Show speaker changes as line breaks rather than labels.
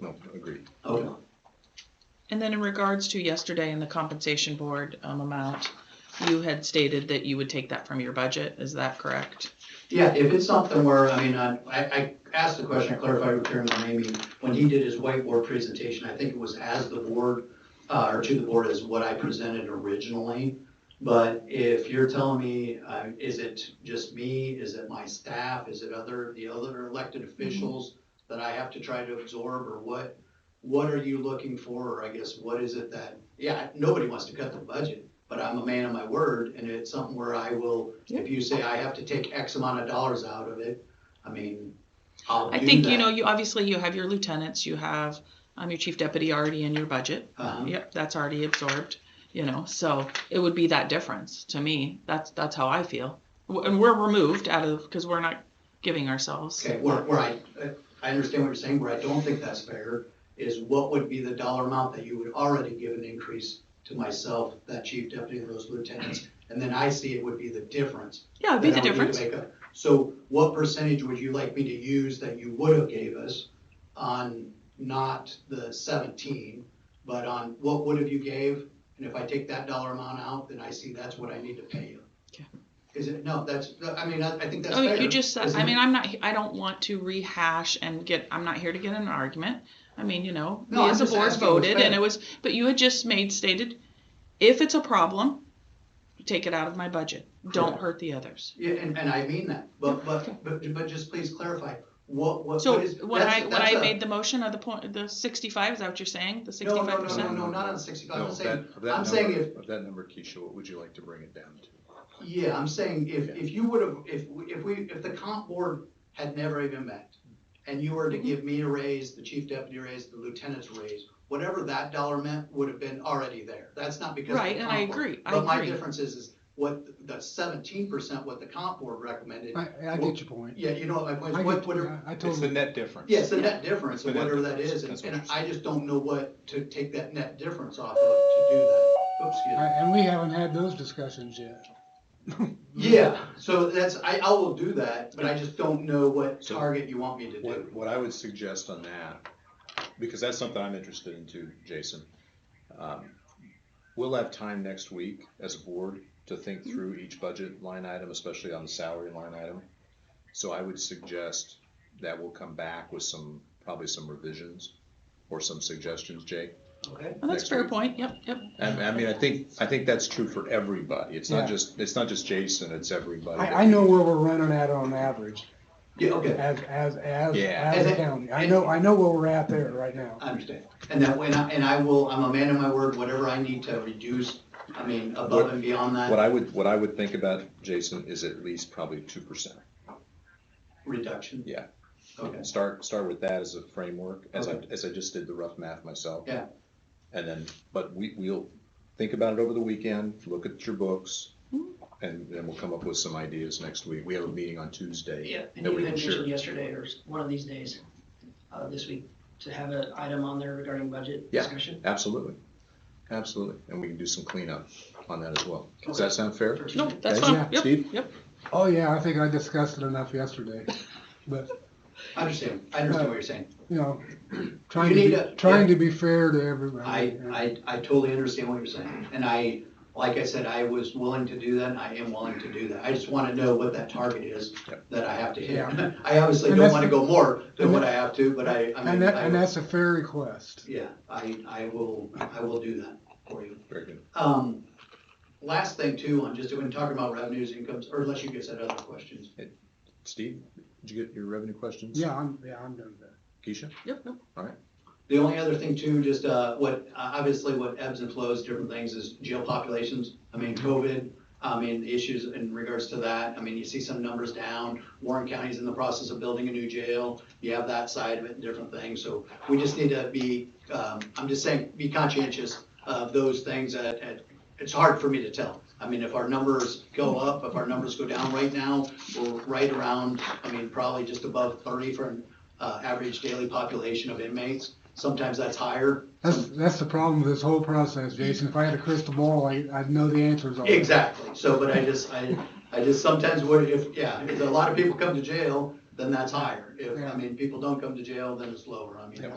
No, agreed.
Okay.
And then in regards to yesterday and the compensation board um, amount, you had stated that you would take that from your budget, is that correct?
Yeah, if it's something where, I mean, I, I I asked the question, I clarified with Chairman Ramey, when he did his whiteboard presentation, I think it was as the board, uh, or to the board is what I presented originally. But if you're telling me, uh, is it just me, is it my staff, is it other, the other elected officials that I have to try to absorb, or what? What are you looking for, or I guess, what is it that, yeah, nobody wants to cut the budget, but I'm a man of my word, and it's something where I will if you say I have to take X amount of dollars out of it, I mean, I'll
I
do
think, you
that.
know, you, obviously you have your lieutenants, you have um, your chief deputy already in your budget.
Uh-huh.
Yep, that's already absorbed, you know, so it would be that difference to me, that's, that's how I feel. W- And we're removed out of, because we're not giving ourselves.
Okay, where, where I, I understand what you're saying, where I don't think that's fair is what would be the dollar amount that you would already give an increase to myself, that chief deputy and those lieutenants? And then I see it would be the difference.
Yeah, it'd be the
that I would need to make
difference.
up. So what percentage would you like me to use that you would have gave us on not the seventeen, but on what would have you gave? And if I take that dollar amount out, then I see that's what I need to pay you.
Okay.
Is it, no, that's, I mean, I, I think that's
Oh,
fair.
you just said,
isn't
I
it?
mean, I'm not, I don't want to rehash and get, I'm not here to get in an argument. I mean, you know, we
No, I'm
as a
just
board
asking what's
voted and
fair.
it was, but you had just made stated, if it's a problem, take it out of my budget. Don't
Correct.
hurt the others.
Yeah, and, and I mean that, but, but, but, but just please clarify, what, what,
So
what is?
when
that's-
I, when
that's
I
a-
made the motion of the point, the sixty-five, is that what you're saying?
No,
The sixty-five
no, no, no,
percent?
no, not on sixty-five,
No,
I'm saying,
that- of that
I'm saying
number-
if-
Of that number, Keisha, what would you like to bring it down to?
Yeah, I'm saying if, if you would have, if, we- if we, if the comp board had never even met, and you were to give me a raise, the chief deputy raise, the lieutenant's raise, whatever that dollar meant would have been already there. That's not because of the
Right, and I
comp board.
agree, I
But my
agree.
difference is, is what the seventeen percent, what the comp board recommended,
I, I get your point.
yeah, you know, what my
I
point, what,
get-
whatever,
yeah, I
It's the
totally,
net difference.
yeah, it's the net difference,
The
or
net
whatever that
difference,
is,
that's
and
what
and
you're
I just don't know what to take that net difference off of to do that. Oops, excuse me.
I- and we haven't had those discussions yet.
Yeah, so that's, I, I will do that, but I just don't know what
So-
target you want me to
What,
do.
what I would suggest on that, because that's something I'm interested in too, Jason. um, We'll have time next week as a board to think
Mm-hmm.
through each budget line item, especially on the salary line item. So I would suggest that we'll come back with some, probably some revisions or some suggestions, Jake.
Okay.
Oh, that's a
next
fair
week.
point, yep, yep.
I, I mean, I think, I think that's true for everybody. It's
Yeah.
not just, it's not just Jason, it's everybody.
I, I know where we're running at on average,
Yeah, okay,
as, as, as,
Yeah.
as
And
a
it-
county. I know, I know where we're at there right now.
I understand. And that, and I, and I will, I'm a man of my word, whatever I need to reduce, I mean, above
What-
and beyond
What
that,
I would, what I would think about, Jason, is at least probably two percent.
reduction.
Yeah.
Okay,
Start, start with that as a framework, as I, as I just did the rough math myself.
Yeah.
And then, but we, we'll think about it over the weekend, look at your books, and then we'll come up with some ideas next week. We have a meeting on Tuesday.
Yeah, and
that
you
we
had
can share.
mentioned yesterday or s- one of these days, uh, this week, to have an item on there regarding budget
Yeah.
discussion.
Absolutely, absolutely, and we can do some cleanup on that as well. Does that sound fair?
First
No,
reading.
that's
Okay,
fine, yep,
Steve?
yep.
Oh, yeah, I think I discussed it enough yesterday. But,
I understand, I understand what you're saying.
you know, trying
need
to,
a-
be- trying to be fair to everybody.
I,
Yeah.
I, I totally understand what you're saying, and I, like I said, I was willing to do that, and I am willing to do that. I just wanna know what that target is
Yep.
that I have to hit.
Yeah.
I obviously
And
don't
that's
wanna
the-
go more than
and
what
that-
I have to, but I, I mean.
And that,
I
and
will-
that's a fair request.
Yeah, I, I will, I will do that for you.
Very good.
Um, last thing too, on just when talking about revenues, incomes, or unless you guys had other questions.
Steve, did you get your revenue questions?
Yeah, I'm, yeah, I'm done with that.
Keisha?
Yep, yep.
The only other thing too, just, uh, what, uh, obviously what ebbs and flows, different things is jail populations. I mean, COVID, I mean, the issues in regards to that. I mean, you see some numbers down. Warren County's in the process of building a new jail. You have that side of it and different things. So we just need to be, um, I'm just saying, be conscientious of those things that, that- it's hard for me to tell. I mean, if our numbers go up, if our numbers go down right now, we're right around, I mean, probably just above thirty for an, uh, average daily population of inmates. Sometimes that's higher.
That's, that's the problem with this whole process, Jason. If I had a crystal ball, I, I'd know the answers. already.
Exactly. So, but I just, I, I just sometimes would, if, yeah, if a lot of people come to jail, then that's higher. If, I
Yeah.
mean, people don't come to jail, then it's lower. I mean,
Yeah.